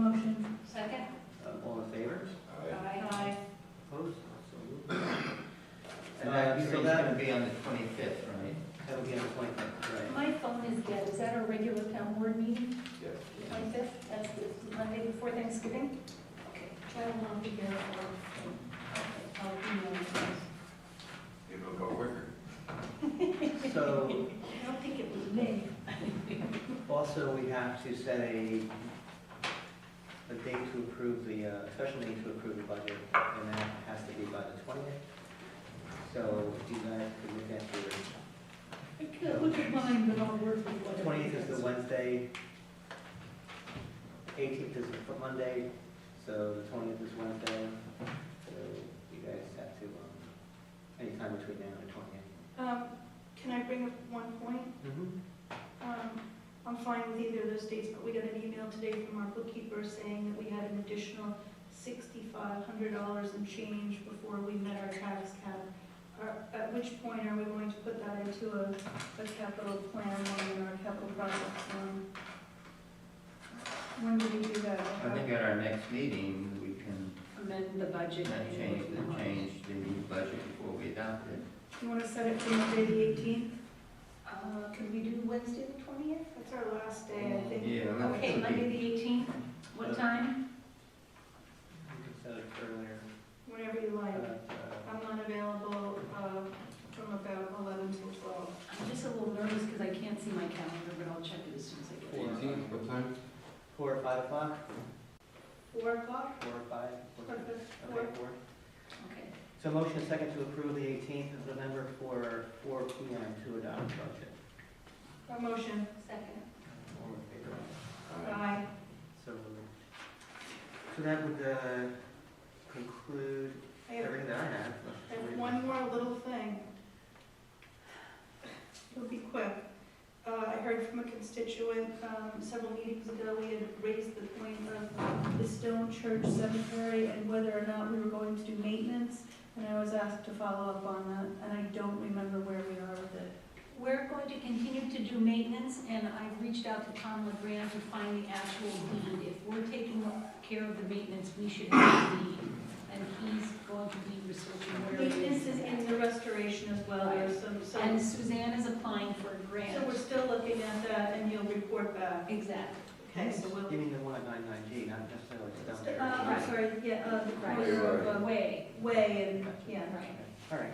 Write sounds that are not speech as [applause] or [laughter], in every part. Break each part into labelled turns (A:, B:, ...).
A: motion. Second?
B: Uh, All in favor?
A: Aye.
B: Opposed? So moved.
C: And that,
B: Uh,
C: so
B: so
C: that'll
B: that,
C: be on the twenty-fifth, right?
B: [laughs] that'll be on the twenty-fifth, right?
A: My phone is dead. Is that our regular town board meeting,
D: Yes.
A: twenty-fifth? That's the Monday before Thanksgiving? Okay, try to not be here or, I'll be on the phone.
D: It'll go quicker.
B: So
A: I don't think it was me.
B: also, we have to set a, a date to approve the, uh, special meeting to approve the budget, and that has to be by the twentieth. So if you guys could look at your
A: I could look at mine, but I'll work with whatever.
B: Twentieth is the
A: gets.
B: Wednesday, eighteenth is the Monday, so the twentieth is Wednesday. So you guys have to, um, anytime between now and the twentieth.
E: Um, Can I bring up one point?
B: Mm-hmm.
E: Um, I'm fine with either of those dates, but we got an email today from our bookkeeper saying that we had an additional $6,500 and change before we met our tax cap. Are- At which point are we going to put that into a a capital plan line or a capital projects line? When do we do that?
C: I think at our next meeting, we can
A: Amend the budget.
C: then
A: and-
C: change, the change the new budget before we adopt it.
E: You want to set it for Monday, the 18th?
A: Uh, can we do Wednesday the twentieth?
E: That's our last day, I think.
C: Yeah. that
A: Okay,
C: would be-
A: Monday the eighteenth, what time?
B: You can set it earlier,
E: Whenever you
B: but,
E: like.
B: uh,
E: I'm not available uh, from about 11 till 12.
A: I'm just a little nervous because I can't see my calendar, but I'll check it as soon as I get it.
B: Four.
D: Eighteenth, what time?
B: four or five o'clock,
E: 4 o'clock?
B: four or five?
E: Four,
B: Okay,
E: four.
B: four.
A: Okay,
B: So motion is second to approve the eighteenth of November for four P M to adopt budget.
E: A motion.
A: second.
B: All in favor?
E: Aye.
B: So, so that would, uh, conclude
E: I have
B: everything that I have.
E: I have one more little thing. It'll be quick. Uh, I heard from a constituent, um, several meetings ago, we had raised the point of the Stone Church Cemetery and whether or not we were going to do maintenance, and I was asked to follow up on that, and I don't remember where we are with it.
A: We're going to continue to do maintenance, and I've reached out to Tom LeGrand to find the actual deed. If we're taking care of the maintenance, we should have the deed, and he's going to be researching where it is.
E: Maintenance is in the restoration as well, there's some, some.
A: And Suzanne is applying for a grant.
E: So we're still looking at that, and you'll report back.
A: Exactly.
E: Okay, so we'll,
B: You mean the one at nine nine G, not necessarily the down
E: uh, I'm
B: there.
E: sorry, yeah, uh, the
A: Right.
E: corner of, uh,
A: Way,
E: Way and, yeah.
A: right.
B: All right,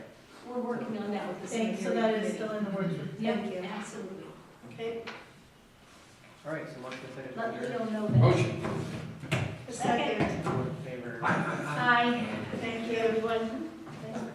A: We're working on that with the cemetery.
E: Thank, so that is still in the works.
A: Yep,
E: Thank you.
A: absolutely.
E: Okay.
B: all right, so motion is second.
A: Let
B: to
A: Leo know that.
D: Motion.
E: Second.
B: adjourn. All in favor?
A: Aye.
E: Thank you, everyone.